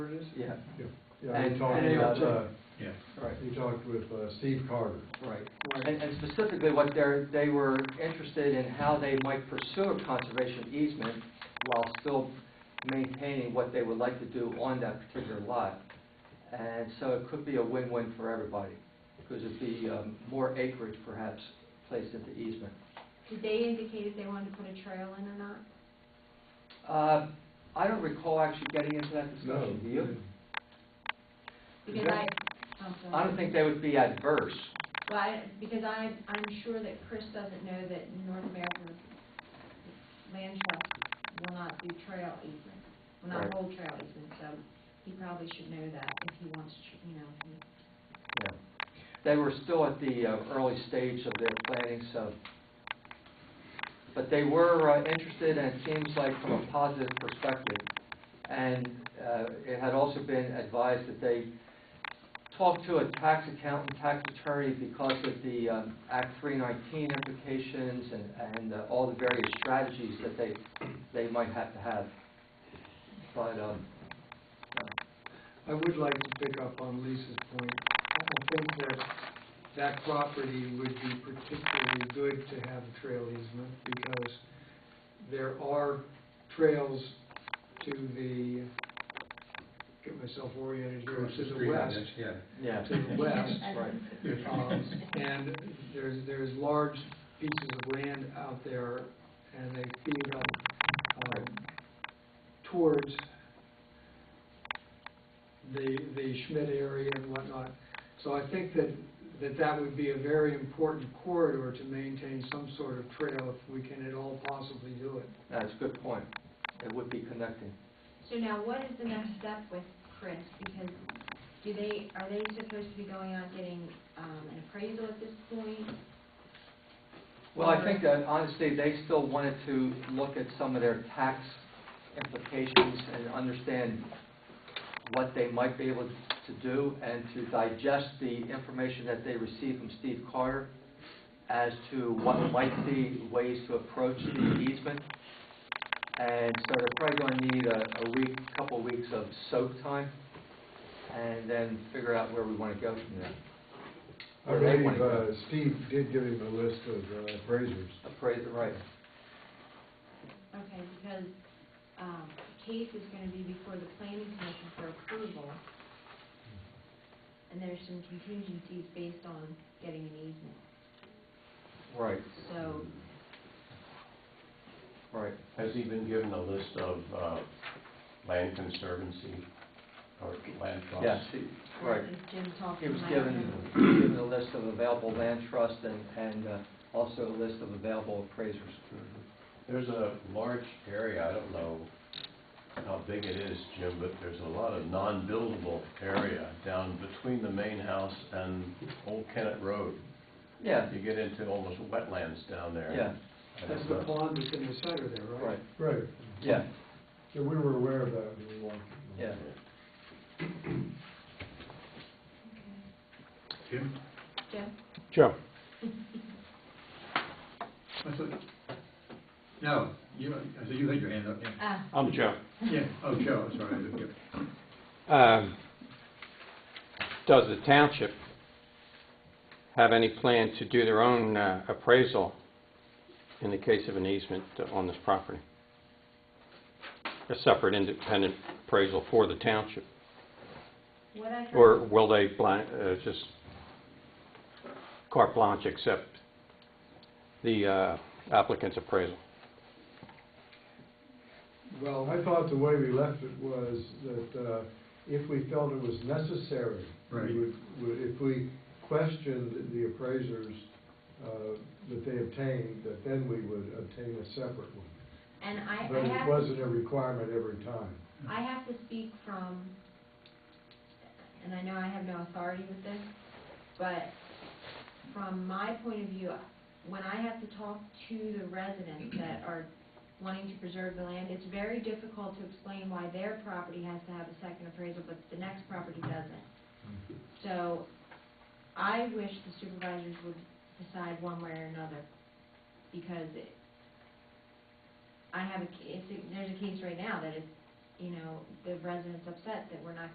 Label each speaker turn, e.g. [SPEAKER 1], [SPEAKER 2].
[SPEAKER 1] yeah,
[SPEAKER 2] Yeah,
[SPEAKER 1] And-
[SPEAKER 2] we talked
[SPEAKER 1] and
[SPEAKER 2] with,
[SPEAKER 1] ALJ.
[SPEAKER 2] uh,
[SPEAKER 3] Yeah.
[SPEAKER 1] right,
[SPEAKER 2] we talked with uh, Steve Carter.
[SPEAKER 1] right. And, and specifically what they're, they were interested in how they might pursue a conservation easement while still maintaining what they would like to do on that particular lot. And so it could be a win-win for everybody, because it'd be, um, more acreage perhaps placed into easement.
[SPEAKER 4] Did they indicate if they wanted to put a trail in or not?
[SPEAKER 1] Uh, I don't recall actually getting into that discussion, do you?
[SPEAKER 4] Because
[SPEAKER 1] Yeah.
[SPEAKER 4] I, I'm sorry.
[SPEAKER 1] I don't think they would be adverse.
[SPEAKER 4] Well, I, because I, I'm sure that Chris doesn't know that North American Land Trust will not do trail easement, will
[SPEAKER 1] Right.
[SPEAKER 4] not hold trail easement, so he probably should know that if he wants, to, you know, if he
[SPEAKER 1] Yeah. They were still at the uh, early stage of their planning, so, but they were uh, interested, and it seems like from a positive perspective. And uh, it had also been advised that they talk to a tax accountant, tax attorney, because of the um, Act 319 implications and, and uh, all the various strategies that they, they might have to have. But, um, uh,
[SPEAKER 5] I would like to pick up on Lisa's point. I I think that that property would be particularly good to have a trail easement because there are trails to the, get myself oriented here,
[SPEAKER 3] Across the
[SPEAKER 5] to the
[SPEAKER 3] street,
[SPEAKER 5] west.
[SPEAKER 3] that's- Yeah.
[SPEAKER 1] yeah.
[SPEAKER 5] To the west,
[SPEAKER 1] Right.
[SPEAKER 5] um, and there's, there's large pieces of land out there, and they feed up, um, towards the, the Schmidt area and whatnot. So I think that, that that would be a very important corridor to maintain some sort of trail if we can at all possibly do it.
[SPEAKER 1] That's a good point. It would be connecting.
[SPEAKER 4] So now, what is the next step with Chris? Because do they, are they supposed to be going out getting um, an appraisal at this point?
[SPEAKER 1] Well, I think that honestly, they still wanted to look at some of their tax implications and understand what they might be able to do and to digest the information that they received from Steve Carter as to what might be ways to approach the easement. And so they're probably going to need a, a week, couple weeks of soak time and then figure out where we want to go from there.
[SPEAKER 2] I
[SPEAKER 1] Where they
[SPEAKER 2] believe
[SPEAKER 1] wanna go.
[SPEAKER 2] uh, Steve did give him a list of uh, appraisers.
[SPEAKER 1] Appraise it right.
[SPEAKER 4] Okay, because um, case is going to be before the planning commission for approval. And there's some contingencies based on getting an easement.
[SPEAKER 1] Right,
[SPEAKER 4] So,
[SPEAKER 1] right.
[SPEAKER 6] Has he been given a list of uh, land conservancy or land trusts?
[SPEAKER 1] Yes, he- right.
[SPEAKER 4] as Jim talked
[SPEAKER 1] He
[SPEAKER 4] to
[SPEAKER 1] was
[SPEAKER 4] my
[SPEAKER 1] given,
[SPEAKER 4] husband,
[SPEAKER 1] given a list of available land trust and, and uh, also a list of available appraisers.
[SPEAKER 6] There's a large area, I don't know how big it is, Jim, but there's a lot of non-buildable area down between the main house and Old Kennet Road.
[SPEAKER 1] Yeah,
[SPEAKER 6] You get into almost wetlands down there.
[SPEAKER 1] yeah,
[SPEAKER 6] And
[SPEAKER 5] That's
[SPEAKER 6] it's
[SPEAKER 5] the
[SPEAKER 6] not-
[SPEAKER 5] pond that's in the center there, right?
[SPEAKER 1] right,
[SPEAKER 2] Right.
[SPEAKER 1] yeah,
[SPEAKER 2] So we were aware of that when we walked.
[SPEAKER 1] yeah.
[SPEAKER 3] Jim?
[SPEAKER 4] Jim?
[SPEAKER 7] Joe,
[SPEAKER 3] I thought, no, you, I said you had your hand up, yeah.
[SPEAKER 4] Ah,
[SPEAKER 7] I'm Joe.
[SPEAKER 3] Yeah, oh, Joe, sorry, I didn't get-
[SPEAKER 7] Um, Does the township have any plan to do their own uh, appraisal in the case of an easement on this property? A separate independent appraisal for the township?
[SPEAKER 4] what I heard.
[SPEAKER 7] Or will they blan- uh, just carte blanche accept the uh, applicant's appraisal?
[SPEAKER 2] Well, I thought the way we left it was that uh, if we felt it was necessary,
[SPEAKER 3] Right.
[SPEAKER 2] we would, would- if we questioned the appraisers uh, that they obtained, that then we would obtain a separate one.
[SPEAKER 4] And I,
[SPEAKER 2] But
[SPEAKER 4] I
[SPEAKER 2] it
[SPEAKER 4] have.
[SPEAKER 2] wasn't a requirement every time.
[SPEAKER 4] I have to speak from, and I know I have no authority with this, but from my point of view, when I have to talk to the residents that are wanting to preserve the land, it's very difficult to explain why their property has to have a second appraisal, but the next property doesn't. So I wish the supervisors would decide one way or another, because it, I have a, ca- it's, a- there's a case right now that it's you know, the residents upset that we're not